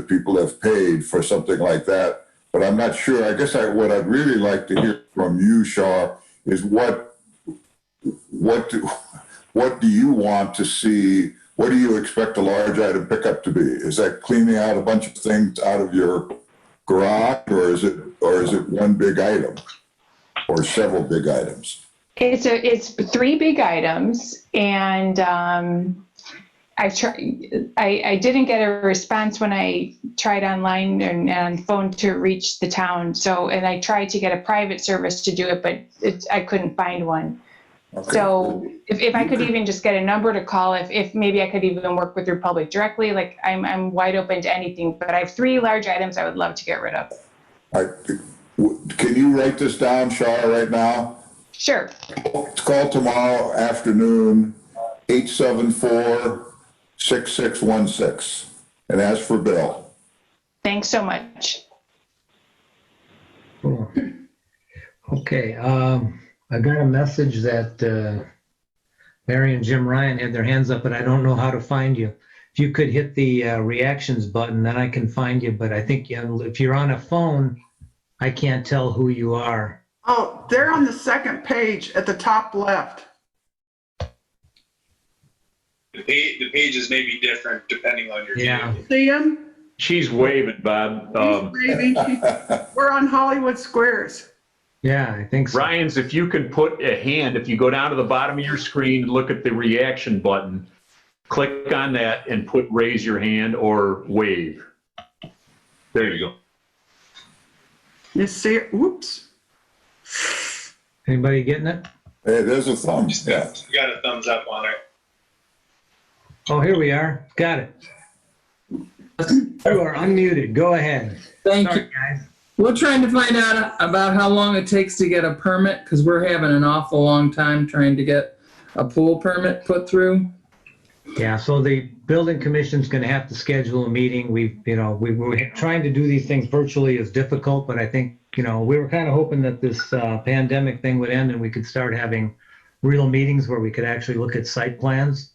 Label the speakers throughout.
Speaker 1: people have paid for something like that. But I'm not sure. I guess I, what I'd really like to hear from you, Shar, is what, what, do- what do you want to see? What do you expect a large item pickup to be? Is that cleaning out a bunch of things out of your garage or is it, or is it one big item? Or several big items?
Speaker 2: It's a, it's three big items and um, I try, I, I didn't get a response when I tried online and, and phone to reach the town. So, and I tried to get a private service to do it, but it, I couldn't find one.
Speaker 1: Okay.
Speaker 2: So if, if I could even just get a number to call, if, if maybe I could even work with Republic directly, like I'm, I'm wide open to anything, but I have three large items I would love to get rid of.
Speaker 1: I, w- can you write this down, Shar, right now?
Speaker 2: Sure.
Speaker 1: Call tomorrow afternoon, eight seven four six six one six, and ask for Bill.
Speaker 2: Thanks so much.
Speaker 3: Okay, um, I got a message that, uh, Mary and Jim Ryan had their hands up, but I don't know how to find you. If you could hit the, uh, reactions button, then I can find you, but I think you- if you're on a phone, I can't tell who you are.
Speaker 4: Oh, they're on the second page at the top left.
Speaker 5: The page, the pages may be different depending on your.
Speaker 3: Yeah.
Speaker 5: view.
Speaker 4: See him?
Speaker 6: She's waving, Bob.
Speaker 4: He's
Speaker 6: Um,
Speaker 4: waving. We're on Hollywood Squares.
Speaker 3: Yeah, I think so.
Speaker 6: Ryan's, if you can put a hand, if you go down to the bottom of your screen, look at the reaction button, click on that and put raise your hand or wave. There you go.
Speaker 4: You see it? Whoops.
Speaker 3: Anybody getting it?
Speaker 1: Hey, there's a thumb, yeah.
Speaker 5: You got a thumbs up on it.
Speaker 3: Oh, here we are. Got it. You are unmuted. Go ahead.
Speaker 7: Thank you.
Speaker 3: Sorry, guys.
Speaker 7: We're trying to find out about how long it takes to get a permit because we're having an awful long time trying to get a pool permit put through.
Speaker 3: Yeah, so the building commission's gonna have to schedule a meeting. We've, you know, we were trying to do these things virtually is difficult, but I think, you know, we were kind of hoping that this uh, pandemic thing would end and we could start having real meetings where we could actually look at site plans.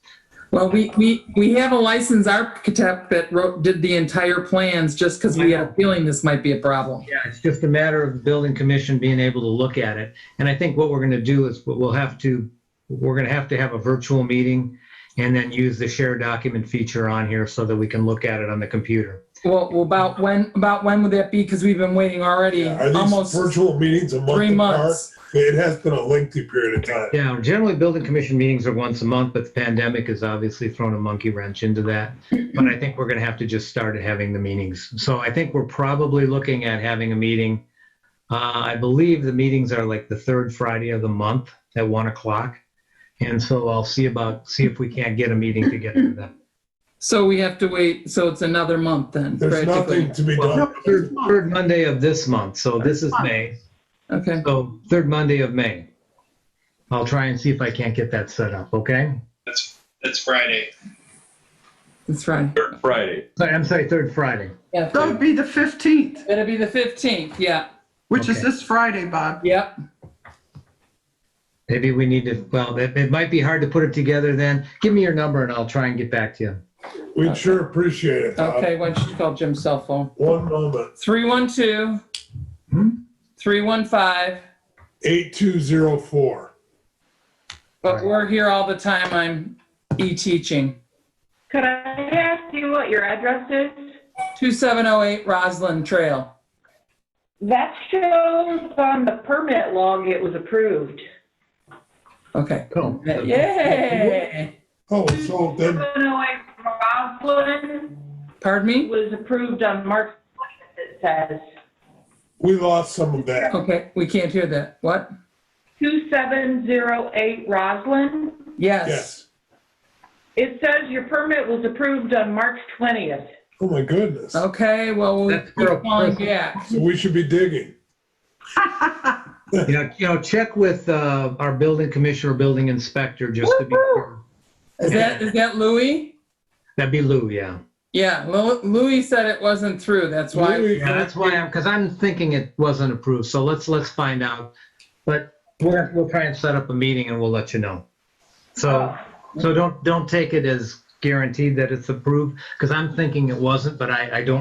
Speaker 7: Well, we, we, we have a licensed architect that wrote, did the entire plans just because we had a feeling this might be a problem.
Speaker 3: Yeah, it's just a matter of the building commission being able to look at it. And I think what we're gonna do is we'll have to, we're gonna have to have a virtual meeting and then use the share document feature on here so that we can look at it on the computer.
Speaker 7: Well, well, about when, about when would that be? Because we've been waiting already
Speaker 8: Are these
Speaker 7: almost
Speaker 8: virtual meetings a
Speaker 7: three
Speaker 8: month apart?
Speaker 7: months.
Speaker 8: It has been a lengthy period of time.
Speaker 3: Yeah, generally, building commission meetings are once a month, but the pandemic has obviously thrown a monkey wrench into that. But I think we're going to have to just start having the meetings. So I think we're probably looking at having a meeting. Uh, I believe the meetings are like the third Friday of the month at one o'clock. And so I'll see about, see if we can't get a meeting together for that.
Speaker 7: So we have to wait, so it's another month then
Speaker 8: There's
Speaker 7: practically.
Speaker 8: nothing to be
Speaker 3: Well,
Speaker 8: done.
Speaker 3: third, third Monday of this month, so this is May.
Speaker 7: Okay,
Speaker 3: So third Monday of May. I'll try and see if I can't get that set up, okay?
Speaker 5: That's, that's Friday.
Speaker 7: that's right.
Speaker 6: Third Friday.
Speaker 3: Sorry, I'm sorry, third Friday.
Speaker 7: Yeah,
Speaker 4: That would be the 15th,
Speaker 7: It'll be the 15th, yeah,
Speaker 4: which is
Speaker 3: Okay.
Speaker 4: this Friday, Bob.
Speaker 7: yep.
Speaker 3: Maybe we need to, well, it, it might be hard to put it together then. Give me your number and I'll try and get back to you.
Speaker 8: We'd sure appreciate it, Bob.
Speaker 7: Okay, why don't you call Jim's cell phone?
Speaker 8: Uh, One moment,
Speaker 7: 312
Speaker 3: Hmm?
Speaker 7: 315.
Speaker 8: eight two zero four.
Speaker 7: But we're here all the time. I'm e teaching.
Speaker 9: Could I ask you what your address is?
Speaker 7: 2708 Roslyn Trail.
Speaker 9: That shows on the permit log it was approved.
Speaker 7: Okay.
Speaker 3: Cool.
Speaker 7: Yay!
Speaker 8: Oh, so then,
Speaker 9: 708 Roslyn
Speaker 7: Pardon me?
Speaker 9: was approved on March 20th, it says.
Speaker 8: we lost some of that.
Speaker 7: Okay, we can't hear that. What?
Speaker 9: 2708 Roslyn.
Speaker 7: Yes.
Speaker 8: Yes.
Speaker 9: It says your permit was approved on March 20th.
Speaker 8: Oh, my goodness. So
Speaker 7: Okay, well, we'll
Speaker 3: That's for a
Speaker 7: keep calling
Speaker 3: person.
Speaker 7: back.
Speaker 8: we should be digging.
Speaker 3: You know, you know, check with, uh, our building commissioner, building inspector, just to be sure.
Speaker 7: Is that, is that Louis?
Speaker 3: That'd be Lou, yeah.
Speaker 7: Yeah, Lou- Louis said it wasn't through. That's why.
Speaker 8: Louis,
Speaker 3: Yeah, that's why I'm, because I'm thinking it wasn't approved, so let's, let's find out. But we'll, we'll try and set up a meeting and we'll let you know. So, so don't, don't take it as guaranteed that it's approved, because I'm thinking it wasn't, but I, I don't